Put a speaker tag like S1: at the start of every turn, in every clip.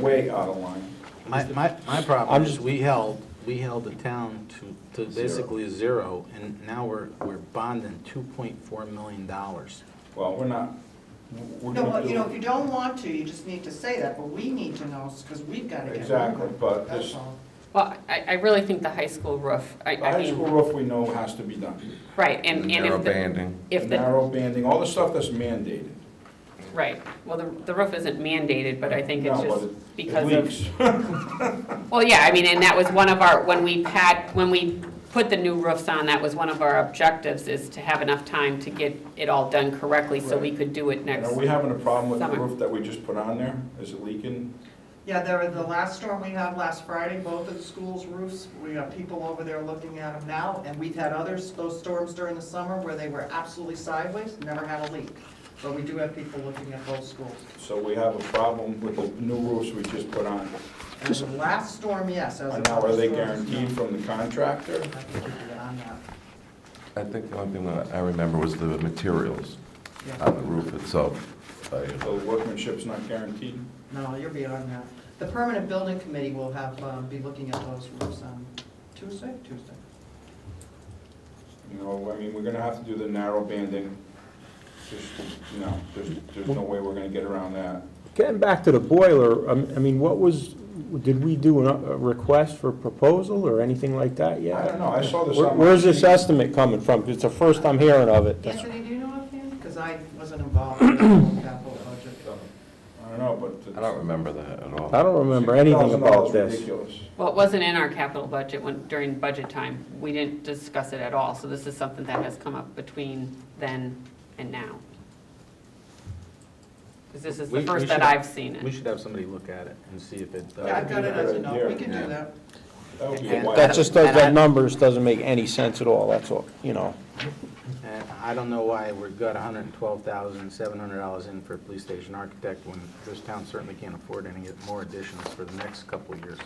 S1: way out of line.
S2: My, my, my problem is, we held, we held the town to, to basically zero, and now we're, we're bonding two point four million dollars.
S1: Well, we're not, we're
S3: No,
S1: gonna
S3: well, you know, if
S1: do.
S3: you don't want to, you just need to say that, but we need to know, because we've got to get
S1: Exactly,
S3: moving.
S1: but
S3: That's
S1: this-
S3: all.
S4: Well, I, I really think the high school roof, I,
S1: The
S4: I
S1: high school
S4: mean,
S1: roof we know has to be done.
S4: right, and, and
S5: Narrow
S4: if the,
S5: banding.
S4: if the,
S1: Narrow banding, all the stuff that's mandated.
S4: right, well, the, the roof isn't mandated, but I think it's
S1: No, but
S4: just
S1: it- it
S4: because of.
S1: leaks.
S4: Well, yeah, I mean, and that was one of our, when we pat, when we put the new roofs on, that was one of our objectives, is to have enough time to get it all done correctly, so we
S1: Right.
S4: could do it
S1: And
S4: next.
S1: Are we having a problem with the
S4: Summer.
S1: roof that we just put on there? Is it leaking?
S3: Yeah, there, were the last storm we had last Friday, both of the schools' roofs, we have people over there looking at them now, and we've had others, those storms during the summer where they were absolutely sideways, never had a leak. But we do have people looking at both schools.
S1: So we have a problem with the new roofs we just put on.
S3: And the last storm, yes, as
S1: And
S3: of
S1: now are they
S3: other storms, no.
S1: guaranteed from the contractor?
S3: I think we can get on that.
S5: I think the only thing that I remember was the materials
S3: Yeah.
S5: on the roof itself. I-
S1: The workmanship's not guaranteed?
S3: No, you're beyond that. The permanent building committee will have, uh, be looking at those roofs on Tuesday, Tuesday.
S1: You know, I mean, we're gonna have to do the narrow banding. Just, you know, there's, there's no way we're gonna get around that.
S6: Getting back to the boiler, um, I mean, what was, did we do an- a request for proposal or anything like that yet?
S1: I don't know, I saw this
S6: Where-
S1: on my
S6: Where's this
S1: sheet.
S6: estimate coming from? It's the first I'm hearing of it.
S3: Anthony, do you know offhand? Because I wasn't involved in the whole capital budget.
S1: I don't know, but. it's-
S5: I don't remember that at all.
S6: I don't remember anything
S1: $6,000
S6: about this.
S1: ridiculous.
S4: Well, it wasn't in our capital budget when, during budget time, we didn't discuss it at all, so this is something that has come up between then and now. Because this is
S2: We-
S4: the
S2: we
S4: first that
S2: should-
S4: I've seen
S2: We
S4: it.
S2: should have somebody look at it and see if it. uh,
S3: Yeah, I've got it as a note, we can
S1: Yeah.
S3: do that.
S1: That would be a
S4: And
S1: wild-
S6: That just, does-
S4: And I-
S6: that numbers doesn't make any sense at all, that's all, you know.
S2: And I don't know why we've got hundred and twelve thousand, seven hundred dollars in for a police station architect when this town certainly can't afford any more additions for the next couple of years.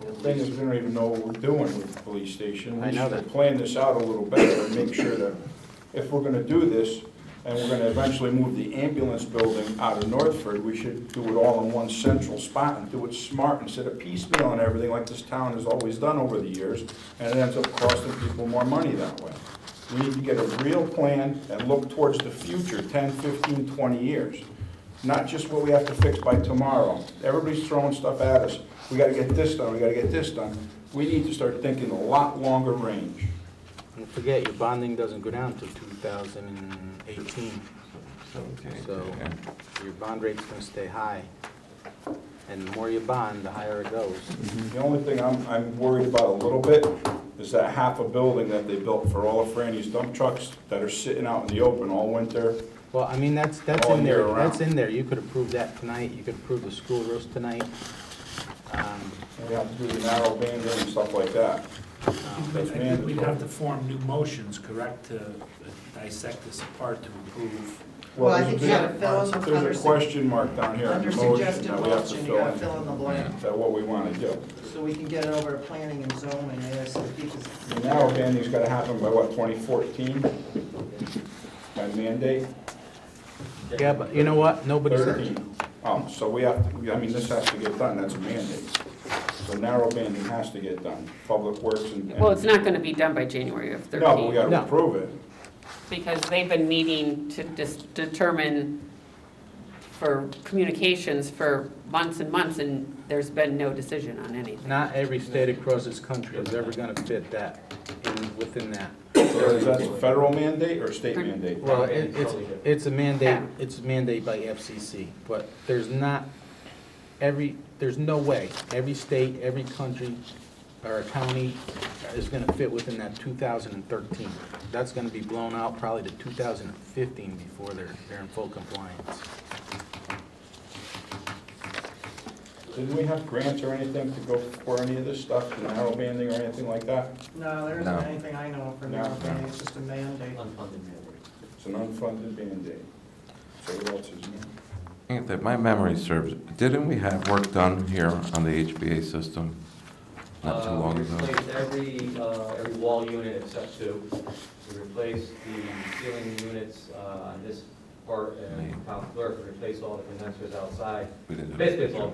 S1: The Thing is, we don't even know what we're doing with the police station.
S2: I know
S1: We
S2: that.
S1: should plan this out a little better and make sure that if we're gonna do this, and we're gonna eventually move the ambulance building out of Northford, we should do it all in one central spot and do it smart instead of piecemeal and everything like this town has always done over the years, and it ends up costing people more money that way. We need to get a real plan and look towards the future, 10, 15, 20 years, not just what we have to fix by tomorrow. Everybody's throwing stuff at us. We gotta get this done, we gotta get this done. We need to start thinking a lot longer range.
S2: And forget, your bonding doesn't go down to two thousand and eighteen,
S5: Okay,
S2: so
S5: yeah.
S2: your bond rate's gonna stay high. And the more you bond, the higher it goes.
S1: The only thing I'm, I'm worried about a little bit is that half a building that they built for all of Franny's dump trucks that are sitting out in the open all winter.
S2: Well, I mean, that's, that's
S1: All
S2: in there,
S1: year round.
S2: that's in there, you could approve that tonight, you could approve the school roast tonight. Um,
S1: and We have to do the narrow banding and stuff like that.
S2: um,
S1: That's
S7: I think We'd have
S1: mandatory.
S7: to form new motions, correct, to dissect this apart to approve.
S3: Well, I think you
S1: there's-
S3: gotta fill in the
S1: There's
S3: under-
S1: a question mark down here in
S3: Under
S1: the motion
S3: suggested
S1: that we have to
S3: motion, you
S1: fill
S3: gotta
S1: in.
S3: fill in the blank,
S1: Is that what we want to do?
S3: so we can get it over to planning and zoning ASAP. 'cause-
S1: The narrow banding's got to happen by what, 2014? By mandate?
S2: Yeah, but you know what, nobody's,
S1: 13. Oh, so we have, to. I mean, this has to get done, that's a mandate. So narrow banding has to get done, Public Works and. and-
S4: Well, it's not gonna be done by January of
S1: No, but we
S4: thirteen,
S1: gotta
S2: No.
S1: approve it.
S4: because they've been meeting to dis- determine for communications for months and months, and there's been no decision on anything.
S2: not every state across this country is ever gonna fit that, in, within that.
S1: So Is that a federal mandate or a state mandate?
S2: Well, it- it's, it's a mandate, it's a mandate by FCC, but there's not, every, there's no way, every state, every country, or county is gonna fit within that two thousand and thirteen. That's gonna be blown out probably to two thousand and fifteen before they're, they're in full compliance.
S1: Didn't we have grants or anything to go for any of this stuff, the narrow banding or anything like that?
S3: No, there
S5: No.
S3: isn't anything I know of for
S1: No,
S3: now,
S1: no.
S3: it's just a mandate.
S1: It's an unfunded mandate. So what else is new?
S5: If that- my memory serves, didn't we have work done here on the HBA system not too
S8: Uh,
S5: long
S8: We
S5: ago?
S8: replaced every, uh, every wall unit except two. We replaced the ceiling units uh, on this part, uh, and
S5: Name.
S8: town clerk replaced all the condensers outside.
S5: We didn't have-
S8: Basically, it's all